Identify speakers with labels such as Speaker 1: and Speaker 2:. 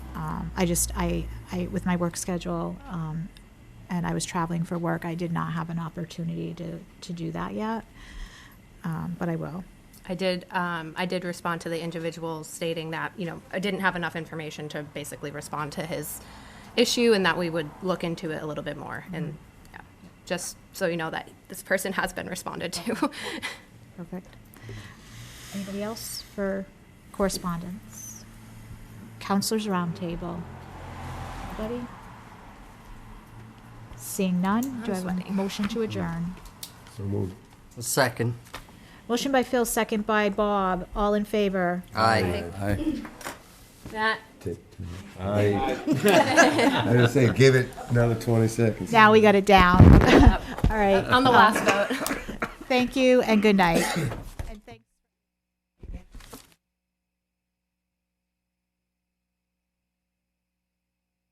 Speaker 1: Um, I just I I with my work schedule um, and I was traveling for work. I did not have an opportunity to to do that yet, um, but I will.
Speaker 2: I did, um, I did respond to the individual stating that, you know, I didn't have enough information to basically respond to his issue and that we would look into it a little bit more. And yeah, just so you know that this person has been responded to.
Speaker 1: Perfect. Anybody else for correspondence? Counselors Roundtable. Anybody? Seeing none, do I have a
Speaker 2: sweating.
Speaker 1: motion to adjourn?
Speaker 3: So moved.
Speaker 4: Second.
Speaker 1: Motion by Phil, second by Bob. All in favor?
Speaker 4: Aye.
Speaker 2: That,
Speaker 3: Take two. Aye. I just say, give it another twenty seconds.
Speaker 1: Now we got it down. All right.
Speaker 2: on the last vote.
Speaker 1: Thank you and good night.